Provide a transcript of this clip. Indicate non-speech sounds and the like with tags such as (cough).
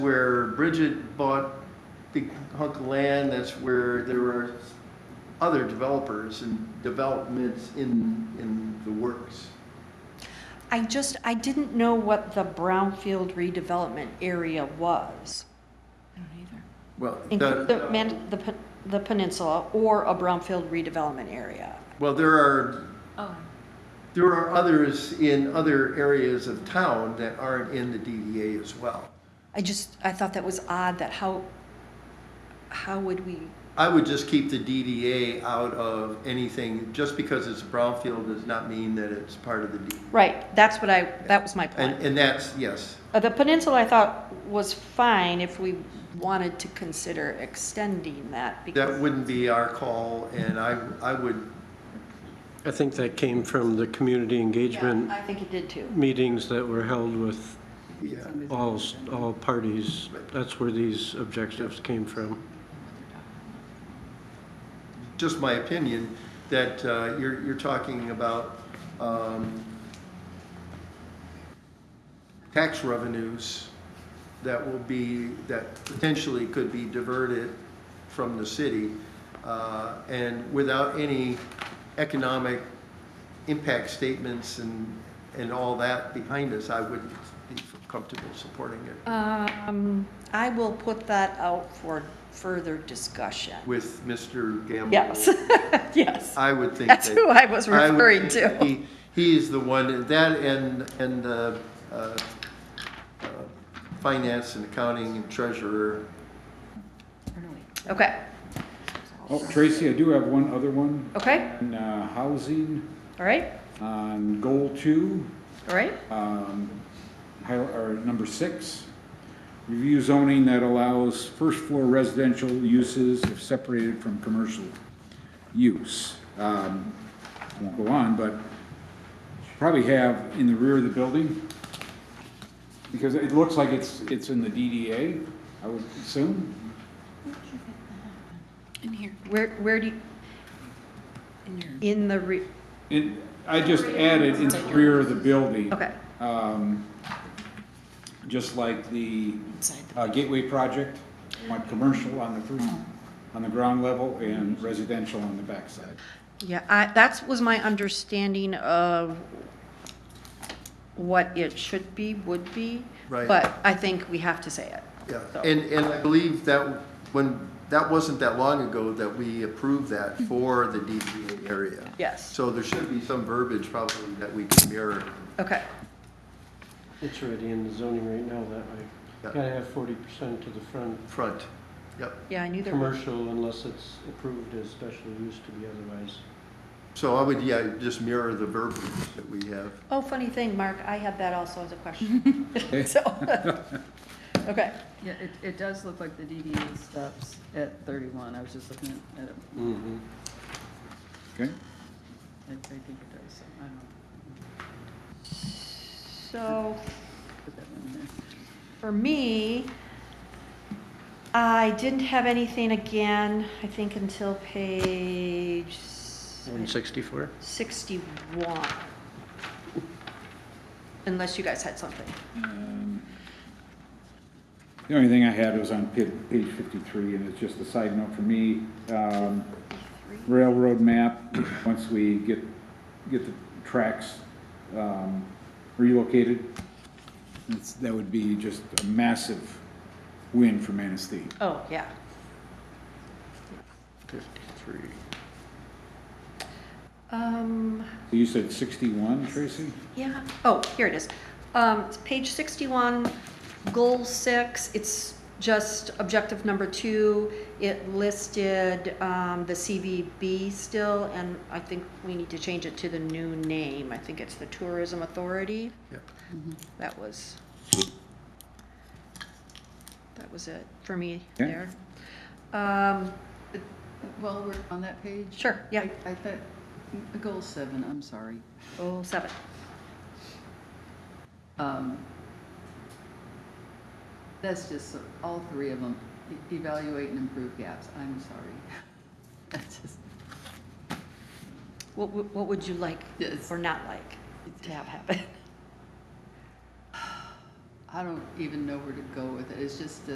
where Bridget bought big hunk of land, that's where there were other developers and developments in, in the works. I just, I didn't know what the brownfield redevelopment area was. I don't either. Well, include the- The, man- the pen- the peninsula or a brownfield redevelopment area. well, there are, Oh, there are others in other areas of town that aren't in the DDA as well. I just, I thought that was odd that how, how would we, I would just keep the DDA out of anything, just because it's brownfield does not mean that it's part of the D. right, that's what I, that was my And, point. and that's, yes, Uh, The peninsula I thought was fine if we wanted to consider extending that that because, wouldn't be our call, and I, I would I think that came from the community Yeah, engagement I think it did too. meetings that were held with Yeah, all, s- all parties. That's where these objectives came from. just my opinion, that uh, you're, you're talking about um, tax revenues that will be, that potentially could be diverted from the city uh, and without any economic impact statements and, and all that behind us, I wouldn't be comfortable supporting it Um, I will put that out for further discussion. with Mr. Gamble. Yes, (laughs) yes. I would think that. That's who I was I would referring think to. he- He is the one, that and, and uh, uh, uh, finance and accounting and or treasurer. no, wait. Okay, Oh, Tracy, I do have one other one. okay, On uh, housing, all right, on goal two, all right. um, hi- or number six. Review zoning that allows first floor residential uses if separated from commercial use. Um, I won't go on, but probably have in the rear of the building. Because it looks like it's, it's in the DDA, I would assume. In here, Where, where do you, in your. in the re, It, I just added in the rear of the building. okay, um, Just like the Inside the. uh, Gateway project, want commercial on the first, Mm. on the ground level and residential on the backside. yeah, I, that was my understanding of what it should be, would be. Right. But I think we have to say it. Yeah, So- and, and I believe that when, that wasn't that long ago that we approved that for the DDA area. Yes, So there should be some verbiage probably that we can mirror. okay, It's already in the zoning right now that way. Gotta have forty percent to the front, Front, yep. yeah, I knew there were, commercial unless it's approved as special use to be otherwise. So I would, yeah, just mirror the verbiage that we have. oh, funny thing, Mark, I had that also as a question. (laughs) So, okay, Yeah, it, it does look like the DDA stops at thirty-one, I was just looking at it, Mm-hmm. Okay? I I think it does, so I don't know. so Put that one in there. For me, I didn't have anything again, I think until page s- One sixty-four? 61. Unless you guys had something. Um, The only thing I had was on pa- page fifty-three, and it's just a side note for me. Um, Railroad map, once we get, get the tracks um, relocated, it's- that would be just a massive win for Manistee. Oh, yeah. Fifty-three. Um, You said sixty-one, Tracy? yeah, oh, here it is. Um, it's page 61, goal six, it's just objective number two. It listed, um, the CVB still, and I think we need to change it to the new name. I think it's the Tourism Authority. Yep. That was, that was it for me Yeah. there. Um, While we're on that page? Sure, yeah. I I thought, mm, goal seven, I'm sorry. goal seven, Um, That's just, all three of them, E- evaluate and improve gaps, I'm sorry. (laughs) That's just, what, wou- what would you like (laughs) Yes. or not like to have happen? I don't even know where to go with it. It's just